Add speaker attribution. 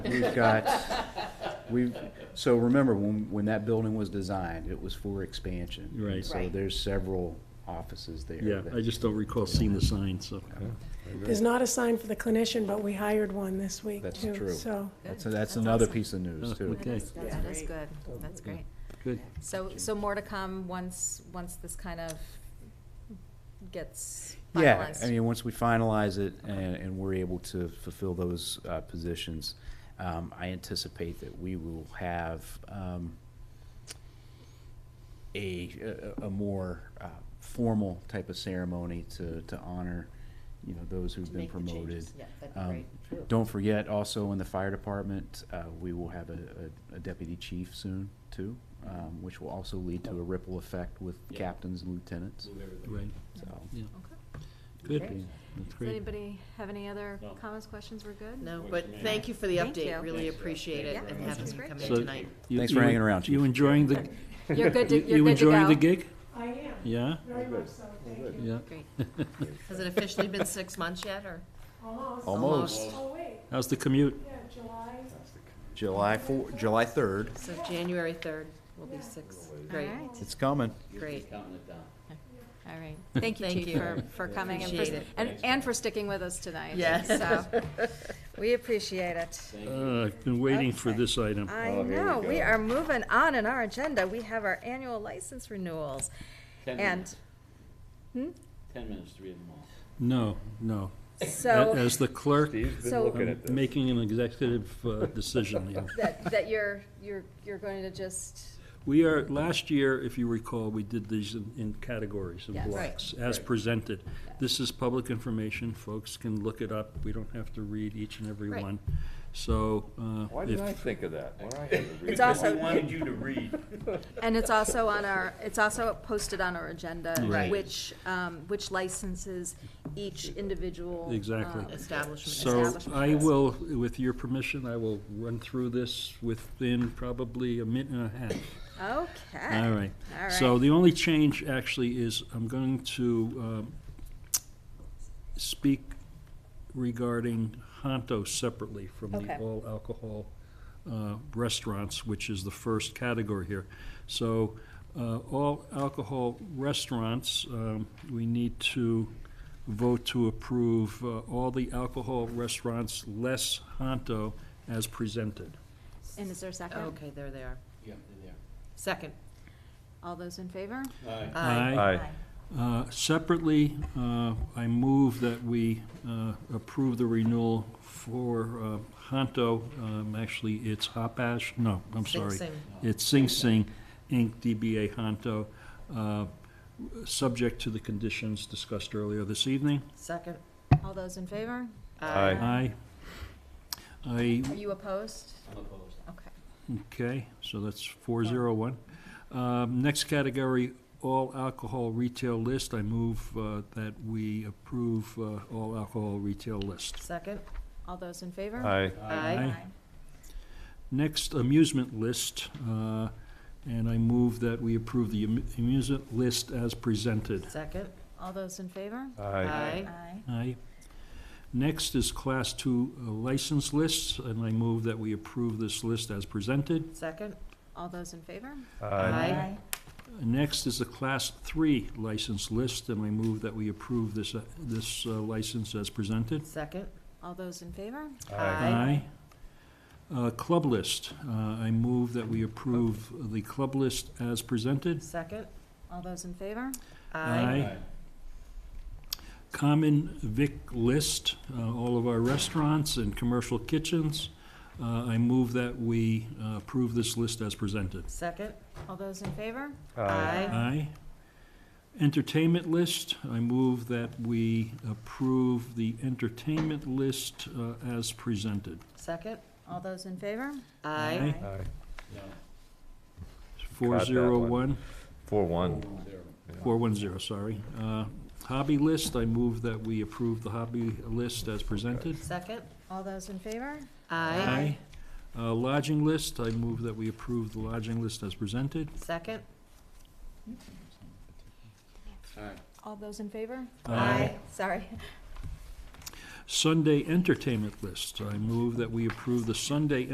Speaker 1: We've got, we've, so remember, when, when that building was designed, it was for expansion. And
Speaker 2: Right.
Speaker 1: So
Speaker 3: Right.
Speaker 1: there's several offices there.
Speaker 2: Yeah,
Speaker 1: that-
Speaker 2: I just don't recall seeing the sign, so.
Speaker 4: There's not a sign for the clinician, but we hired one this week,
Speaker 1: That's
Speaker 4: too.
Speaker 1: true.
Speaker 4: So,
Speaker 1: That's,
Speaker 3: Good.
Speaker 1: that's
Speaker 3: That's
Speaker 1: another
Speaker 3: awesome.
Speaker 1: piece of news,
Speaker 2: Oh,
Speaker 1: too.
Speaker 2: okay.
Speaker 3: That is,
Speaker 5: That's
Speaker 3: that is
Speaker 5: great.
Speaker 3: good, that's great.
Speaker 2: Good.
Speaker 3: So, so more to come once, once this kind of gets
Speaker 1: Yeah, I
Speaker 3: finalized?
Speaker 1: mean, once we finalize it and, and we're able to fulfill those, uh, positions, um, I anticipate that we will have, um, a, a, a more, uh, formal type of ceremony to, to honor, you know, those who've
Speaker 5: To
Speaker 1: been
Speaker 5: make the
Speaker 1: promoted.
Speaker 5: changes. Yeah, that'd
Speaker 1: Um,
Speaker 5: be great.
Speaker 1: Don't forget, also in the fire department, uh, we will have a, a- a deputy chief soon, too, um, which will also lead to a ripple effect with
Speaker 6: Yeah.
Speaker 1: captains and lieutenants,
Speaker 2: Right,
Speaker 1: so.
Speaker 2: yeah,
Speaker 3: Okay.
Speaker 2: good.
Speaker 5: Great.
Speaker 2: That's
Speaker 3: Does
Speaker 2: great.
Speaker 3: anybody have any other
Speaker 6: No.
Speaker 3: comments, questions? We're good?
Speaker 5: No,
Speaker 6: Wait
Speaker 5: but
Speaker 6: for me.
Speaker 5: thank you for the
Speaker 3: Thank
Speaker 5: update,
Speaker 3: you.
Speaker 5: really
Speaker 6: Thanks, yeah.
Speaker 5: appreciate it,
Speaker 6: Yeah,
Speaker 5: and
Speaker 3: that
Speaker 5: having
Speaker 3: was
Speaker 5: you
Speaker 3: great.
Speaker 5: come
Speaker 2: So
Speaker 5: in tonight.
Speaker 2: you-
Speaker 1: Thanks
Speaker 2: you-
Speaker 1: for hanging around,
Speaker 2: You
Speaker 1: Chief.
Speaker 2: enjoying the,
Speaker 3: You're good to,
Speaker 2: you-
Speaker 3: you're
Speaker 2: you
Speaker 3: good to go.
Speaker 2: enjoying the gig?
Speaker 4: I am,
Speaker 2: Yeah,
Speaker 4: very much so, thank you.
Speaker 2: yeah.
Speaker 5: Great. Has it officially been six months yet, or?
Speaker 4: Almost.
Speaker 1: Almost.
Speaker 4: Oh, wait,
Speaker 2: How's the commute?
Speaker 4: yeah, July,
Speaker 1: July four, July third.
Speaker 5: So January third will be six. Great,
Speaker 3: All right,
Speaker 1: It's coming.
Speaker 5: great.
Speaker 6: Counting it down.
Speaker 3: all right. Thank you,
Speaker 5: Thank
Speaker 3: Chief,
Speaker 5: you.
Speaker 3: for, for coming and for,
Speaker 5: Appreciate it.
Speaker 3: and, and for sticking with us tonight.
Speaker 5: Yeah.
Speaker 3: So, we appreciate it.
Speaker 2: Uh, I've been waiting for this item.
Speaker 3: I know, we are moving on in our agenda. We have our annual license renewals.
Speaker 6: Ten
Speaker 3: And, hmm?
Speaker 6: minutes, ten minutes to read them all.
Speaker 2: No, no. A-
Speaker 3: so,
Speaker 2: As the clerk,
Speaker 3: so
Speaker 2: I'm making an executive uh, decision here.
Speaker 3: that, that you're, you're, you're going to just,
Speaker 2: We are, last year, if you recall, we did these in- in categories and
Speaker 3: Yes. Right.
Speaker 2: blocks, as presented. This is public information, folks can look it up, we don't have to read each and every
Speaker 3: Right.
Speaker 2: one. So, uh,
Speaker 7: Why didn't I
Speaker 2: if,
Speaker 7: think of that? When I had to read
Speaker 3: it's
Speaker 7: that?
Speaker 3: also.
Speaker 6: you to read.
Speaker 3: And it's also on our, it's also posted on our agenda,
Speaker 2: Right.
Speaker 3: which, um, which licenses each individual.
Speaker 2: Exactly.
Speaker 3: um,
Speaker 5: Establishment.
Speaker 2: so
Speaker 3: establishment
Speaker 2: I
Speaker 3: has.
Speaker 2: will, with your permission, I will run through this within probably a minute and a half.
Speaker 3: Okay.
Speaker 2: All right.
Speaker 3: All
Speaker 2: So
Speaker 3: right.
Speaker 2: the only change actually is I'm going to um, speak regarding Honto separately from the
Speaker 3: Okay.
Speaker 2: all alcohol uh, restaurants, which is the first category here. So uh, all alcohol restaurants, um, we need to vote to approve uh, all the alcohol restaurants less Honto as presented.
Speaker 3: And is there a second?
Speaker 5: Okay, there they are.
Speaker 6: Yeah, they're
Speaker 5: Second.
Speaker 3: All those in favor?
Speaker 6: there. All right.
Speaker 5: Aye.
Speaker 7: Aye.
Speaker 2: Uh, Separately, uh, I move that we uh, approve the renewal for uh, Honto, um, actually, it's Hopash, no, I'm
Speaker 5: Sing
Speaker 2: sorry.
Speaker 5: Sing.
Speaker 2: It's Sing Sing, Inc., DBA Honto, uh, subject to the conditions discussed earlier this evening.
Speaker 5: Second.
Speaker 3: All those in favor?
Speaker 7: Aye.
Speaker 2: Aye. I
Speaker 3: Are you opposed?
Speaker 6: I'm opposed.
Speaker 3: Okay.
Speaker 2: Okay, so that's four zero one. Um, next category, all alcohol retail list. I move, uh, that we approve, uh, all alcohol retail list.
Speaker 5: Second.
Speaker 3: All those in favor?
Speaker 7: Aye.
Speaker 5: Aye.
Speaker 2: Next, amusement list, uh, and I move that we approve the amu- amusement list as presented.
Speaker 5: Second.
Speaker 3: All those in favor?
Speaker 7: Aye.
Speaker 3: Aye.
Speaker 2: Aye. Next is class two uh, license lists, and I move that we approve this list as presented.
Speaker 5: Second.
Speaker 3: All those in favor?
Speaker 7: Aye.
Speaker 2: Next is the Class 3 license list, and I move that we approve this, uh, this uh, license as presented.
Speaker 5: Second.
Speaker 3: All those in favor?
Speaker 2: Aye. Uh, Club list, uh, I move that we approve the club list as presented.
Speaker 5: Second.
Speaker 3: All those in favor?
Speaker 2: Aye. Common Vic list, uh, all of our restaurants and commercial kitchens. Uh, I move that we uh, approve this list as presented.
Speaker 5: Second.
Speaker 3: All those in favor?
Speaker 2: Aye. Entertainment list, I move that we approve the entertainment list uh, as presented.
Speaker 5: Second.
Speaker 3: All those in favor?
Speaker 5: Aye.
Speaker 7: Aye.
Speaker 6: No,
Speaker 2: Four zero one,
Speaker 7: Four one.
Speaker 6: zero.
Speaker 2: four one zero, sorry. Uh, Hobby list, I move that we approve the hobby list as presented.
Speaker 5: Second.
Speaker 3: All those in favor?
Speaker 5: Aye.
Speaker 2: Uh, Lodging list, I move that we approve the lodging list as presented.
Speaker 5: Second.
Speaker 6: All right.
Speaker 3: All those in favor?
Speaker 5: Aye.
Speaker 3: Sorry.
Speaker 2: Sunday entertainment list. I move that we approve the Sunday